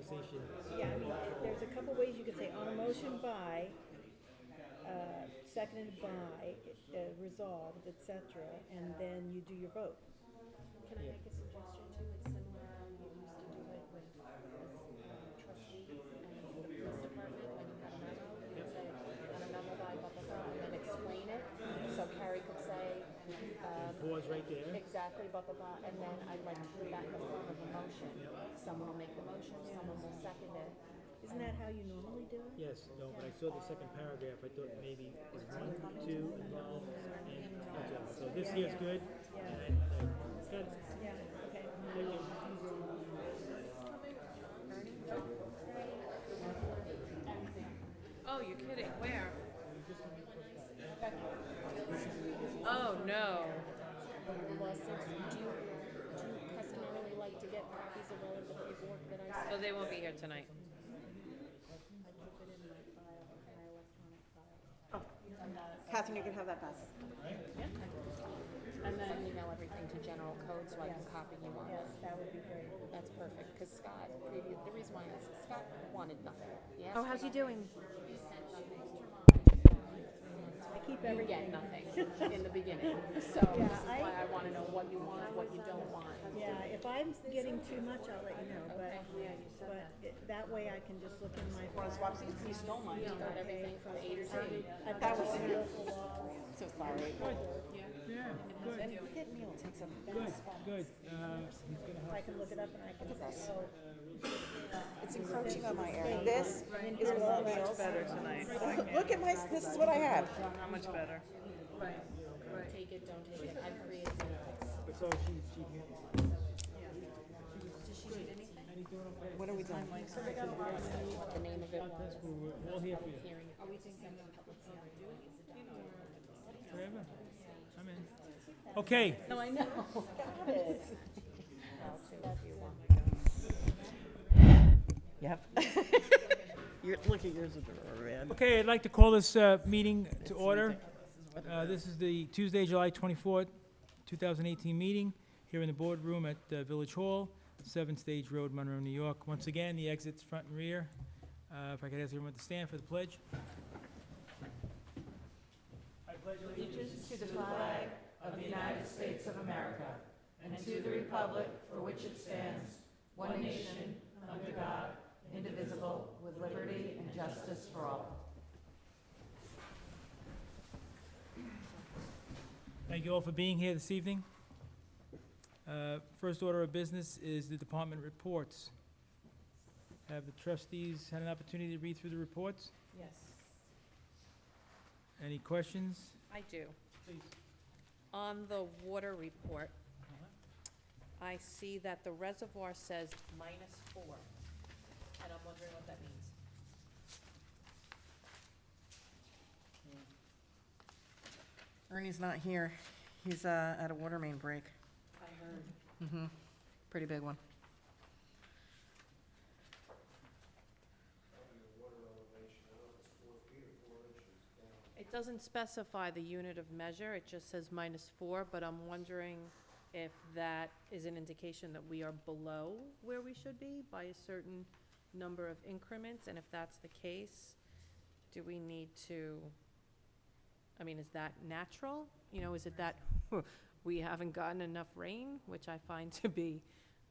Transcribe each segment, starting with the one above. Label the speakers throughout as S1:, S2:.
S1: motion.
S2: Yeah, I mean, there's a couple ways you could say on a motion by, uh, seconded by, uh, resolved, et cetera, and then you do your vote.
S3: Can I make a suggestion too? It's similar, you used to do it with um, trustees and the police department when you had a memo. You would say, on a memo by blah, blah, blah, and then explain it. So Carrie could say, um,
S1: Pause right there.
S3: exactly blah, blah, blah, and then I'd like to put that in the form of a motion. Someone will make the motion, someone will second it.
S2: Isn't that how you normally do it?
S1: Yes, no, but I saw the second paragraph, I thought maybe it's one, two, no, and that's all. So this here's good, and, uh, good.
S2: Yeah, okay.
S1: Thank you.
S4: Oh, you're kidding. Where? Oh, no.
S3: Well, since, do you, do you customarily like to get copies of all of the paperwork that I send?
S4: So Oh, they won't be here tonight.
S3: I keep it in my file, in my electronic file.
S5: Catherine, you can have that back.
S3: And then email everything to general code so I can copy you on
S2: Yes,
S3: it.
S2: that would be great.
S3: That's perfect, because Scott, previous, the reason why is Scott wanted nothing. Yes.
S6: Oh, how's he doing?
S2: I keep
S3: You
S2: everything.
S3: get nothing in the beginning, so
S2: Yeah,
S3: this is
S2: I-
S3: why I wanna know what you want, what you don't want.
S2: Yeah, if I'm getting too much, I'll let you know, but,
S3: Okay.
S2: but it- that way I can just look in my
S5: Want to
S2: file.
S5: swap seats? You stole mine.
S3: Got everything from A to Z.
S2: I've
S5: That
S2: got
S5: was
S2: all the
S5: you.
S2: local law.
S5: So sorry.
S1: Yeah, good,
S5: And that meal takes up
S1: good,
S5: that spot.
S1: good. Uh, he's gonna help.
S2: I can look it up and I can say, oh,
S5: It's encroaching on my area. This is more meals.
S7: better tonight.
S5: Look at my, this is what I have.
S7: How much better?
S3: Take it, don't take it, I created it.
S1: So she, she can't.
S5: What are we doing?
S3: What the name of it was.
S1: We're all here for you.
S3: Hearing. Are we thinking public hearing?
S1: Forever. I'm in. Okay,
S3: No, I know.
S7: Yep. Your, look at yours with the rubber band.
S1: okay, I'd like to call this, uh, meeting to order. Uh, This is the Tuesday, July 24th, 2018 meeting here in the boardroom at uh, Village Hall, 7 Stage Road, Monroe, New York. Once again, the exits front and rear. Uh, If I could ask everyone to stand for the pledge. Thank you all for being here this evening. Uh, First order of business is the department reports. Have the trustees had an opportunity to read through the reports? Yes. Any questions?
S4: I do.
S1: Please.
S4: On the water report, I see that the reservoir says minus four, and I'm wondering what that means.
S7: Ernie's not here. He's, uh, at a water main break.
S4: I heard.
S7: Mm-hmm. Pretty big one.
S4: It doesn't specify the unit of measure, it just says minus four, but I'm wondering if that is an indication that we are below where we should be by a certain number of increments, and if that's the case, do we need to, I mean, is that natural? You know, is it that we haven't gotten enough rain, which I find to be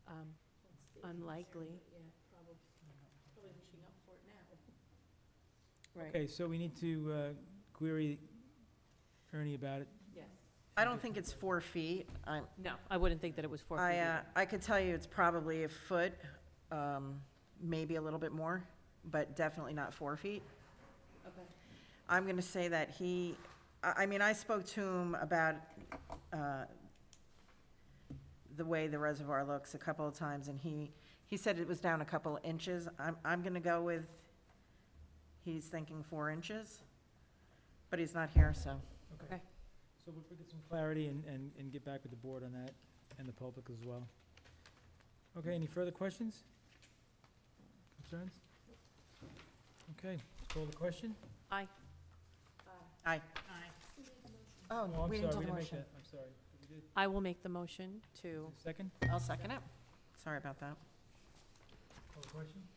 S4: um, unlikely?
S1: Okay, so we need to uh, query Ernie about it.
S4: Yes.
S7: I don't think it's four feet. I'm,
S4: No, I wouldn't think that it was four feet.
S7: I,
S4: either.
S7: uh, I could tell you it's probably a foot, um, maybe a little bit more, but definitely not four feet.
S4: Okay.
S7: I'm gonna say that he, I, I mean, I spoke to him about, uh, the way the reservoir looks a couple of times, and he, he said it was down a couple of inches. I'm, I'm gonna go with, he's thinking four inches, but he's not here, so.
S4: Okay.
S1: So we'll get some clarity and, and, and get back with the board on that and the public as well. Okay, any further questions? Concerns? Okay, call the question.
S4: Aye.
S7: Aye. Oh,
S1: Oh, I'm
S7: we didn't
S1: sorry, we
S7: do the
S1: didn't make
S7: motion.
S1: that, I'm sorry. We did.
S4: I will make the motion to
S1: Second,
S7: I'll second it. Sorry about that.
S1: call the question.